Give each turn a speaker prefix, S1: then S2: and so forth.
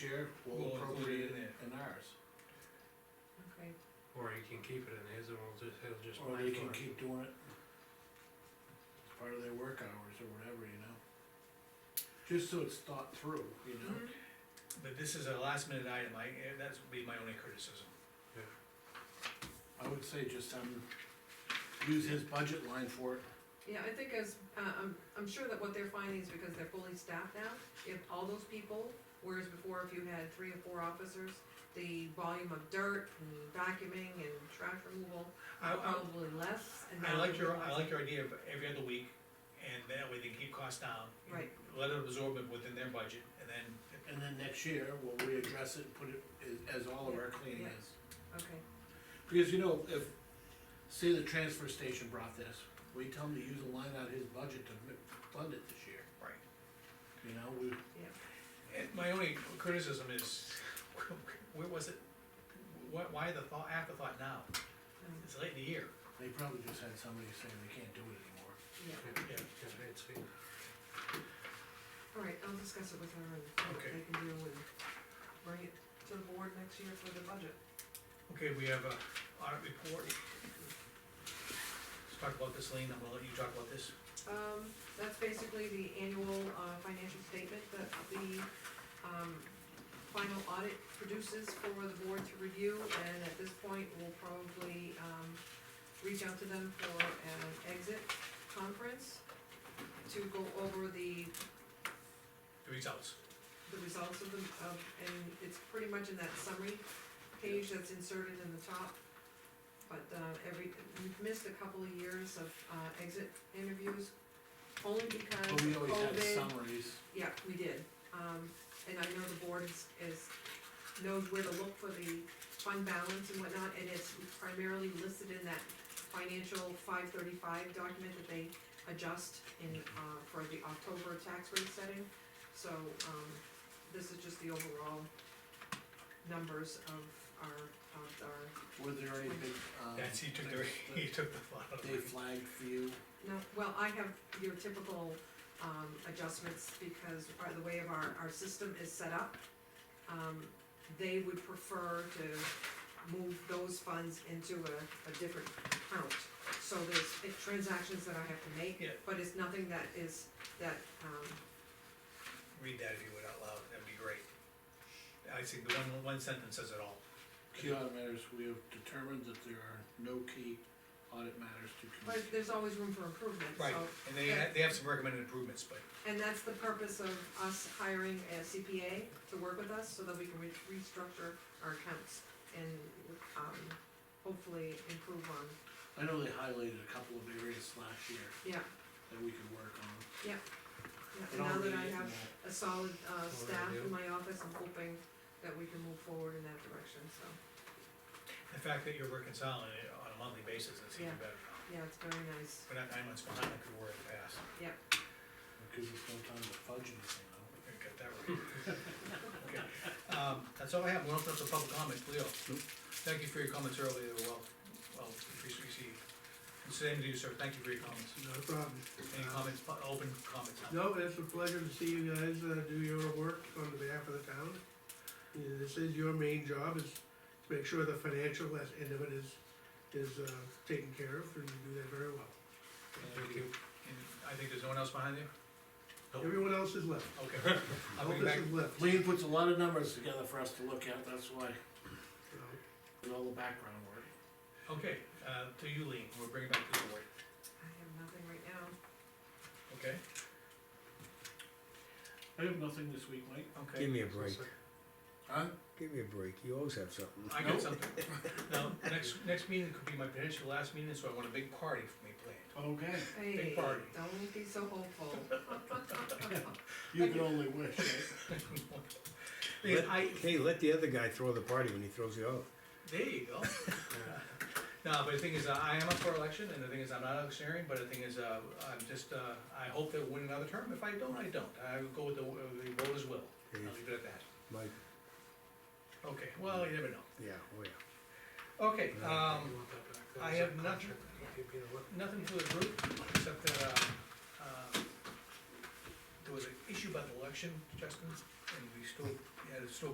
S1: share will
S2: We'll include it
S1: appropriate
S2: in there.
S1: in ours.
S3: Okay,
S4: Or he can keep it in his and we'll just, he'll just.
S1: Or
S4: pay
S1: they
S4: for
S1: can
S4: it.
S1: keep doing it. as Part of their work hours or whatever, you know? Just so it's thought through, you know?
S2: But this is a last minute item, I, eh, that's would be my only criticism.
S1: I would say just, um, use his budget line for it.
S3: yeah, I think as, uh, I'm, I'm sure that what they're finding is because they're fully staffed now, if all those people, whereas before if you had three or four officers, the volume of dirt and vacuuming and trash removal,
S2: I, I,
S3: probably less. and
S2: I
S3: now
S2: like your,
S3: they're
S2: I like your idea of every other week, and that way they can keep costs down.
S3: Right.
S2: Let it absorb it within their budget, and then,
S1: And then next year, we'll readdress it and put it as, as all of our cleaning
S3: Yeah.
S1: is.
S3: Okay,
S1: Because you know, if, say the transfer station brought this, we tell them to use a line out of his budget to mi- fund it this year,
S2: right.
S1: you know, we,
S2: And my only criticism is, where was it? Why, why the thought, afterthought now?
S3: um,
S2: It's late in the year.
S1: they probably just had somebody saying they can't do it anymore.
S3: yeah,
S4: Yeah, yeah, it's,
S3: all right, I'll discuss it with her and see what
S2: Okay.
S3: they can do and bring it to the board next year for the budget.
S2: Okay, we have a audit report. Let's talk about this, Lean, I'm gonna let you talk about this.
S3: Um, that's basically the annual, uh, financial statement that the, um, final audit produces for the board to review, and at this point, we'll probably, um, reach out to them for an exit conference to go over the,
S2: The results.
S3: the results of the, of, and it's pretty much in that summary page that's inserted in the top. But, uh, every, we've missed a couple of years of, uh, exit interviews, only because of
S1: But we always had
S3: COVID.
S1: summaries,
S3: Yeah, we did, um, and I know the board is, is, knows where to look for the fund balance and whatnot, and it's primarily listed in that financial five thirty-five document that they adjust in, uh, for the October tax rate setting. So, um, this is just the overall numbers of our, of our,
S1: were there any big, um.
S2: That's, he took the, he
S1: things
S2: took the thought out
S1: that
S2: of
S1: They
S2: it.
S1: flagged for you,
S3: no, well, I have your typical, um, adjustments because by the way of our, our system is set up. Um, they would prefer to move those funds into a, a different account. So there's uh, transactions that I have to make,
S2: Yeah.
S3: but it's nothing that is, that, um,
S2: Read that if you would out loud, that'd be great. I think the one, one sentence says it all.
S1: key audit matters, we have determined that there are no key audit matters to
S3: but
S1: communicate.
S3: there's always room for improvement, so.
S2: Right, and they, ha- they have some recommended improvements, but
S3: And that's the purpose of us hiring a CPA to work with us, so that we can re- restructure our accounts and, um, hopefully improve on,
S1: I know they highlighted a couple of areas last year
S3: yeah,
S1: that we could work on.
S3: yeah.
S1: It
S3: And now
S1: already
S3: that I
S1: is in
S3: have
S1: that.
S3: a solid, uh, staff
S4: yeah.
S3: in my office, I'm hoping that we can move forward in that direction, so,
S2: the fact that you're reconciling it on a monthly basis, it's even
S3: Yeah.
S2: better.
S3: yeah, it's very nice,
S2: We're not nine months behind like we were in the past.
S1: Because it's no time to fudge anything, though.
S2: I got that right. Okay, Um, that's all I have, we'll open up to public comments, Leo. Thank you for your comments earlier, they were well, well, appreciate you. Same to you, sir, thank you for your comments.
S5: No problem.
S2: Any comments, pu- open comments now?
S5: No, it's a pleasure to see you guys uh, do your work on the behalf of the town. Yeah, This is your main job, is to make sure the financial as- end of it is, is uh, taken care of, and you do that very well.
S2: Thank you. And I think there's no one else behind you? Nope.
S5: Everyone else is left,
S2: Okay. I'll
S5: all
S2: bring back,
S5: this is left,
S1: Lean puts a lot of numbers together for us to look at, that's why,
S5: you know.
S1: with all the background work.
S2: okay, uh, to you, Lean, we'll bring it back to the board,
S3: I have nothing right now.
S2: okay?
S1: I have nothing this week, Mike.
S2: Okay.
S6: Give me a break.
S1: Huh?
S6: Give me a break. You always have something.
S2: I
S1: Nope.
S2: got something. Now, next, next meeting could be my potential last meeting, so I want a big party for me planned.
S1: Okay.
S3: Hey,
S2: party.
S3: don't be so hopeful.
S1: You can only wish, right?
S2: Because I,
S6: Hey, let the other guy throw the party when he throws you out.
S2: There you go. No, but the thing is, uh, I am up for election, and the thing is, I'm not electioneering, but the thing is, uh, I'm just, uh, I hope they'll win another term, if I don't, I don't, I will go with the, uh, the voters will, I'll leave it at that.
S6: Mike,
S2: Okay, well, you never know,
S6: yeah, oh yeah.
S2: okay, um, I have nothing, nothing for the group, except that, uh, uh, there was an issue about the election, Justin, and we still, had to still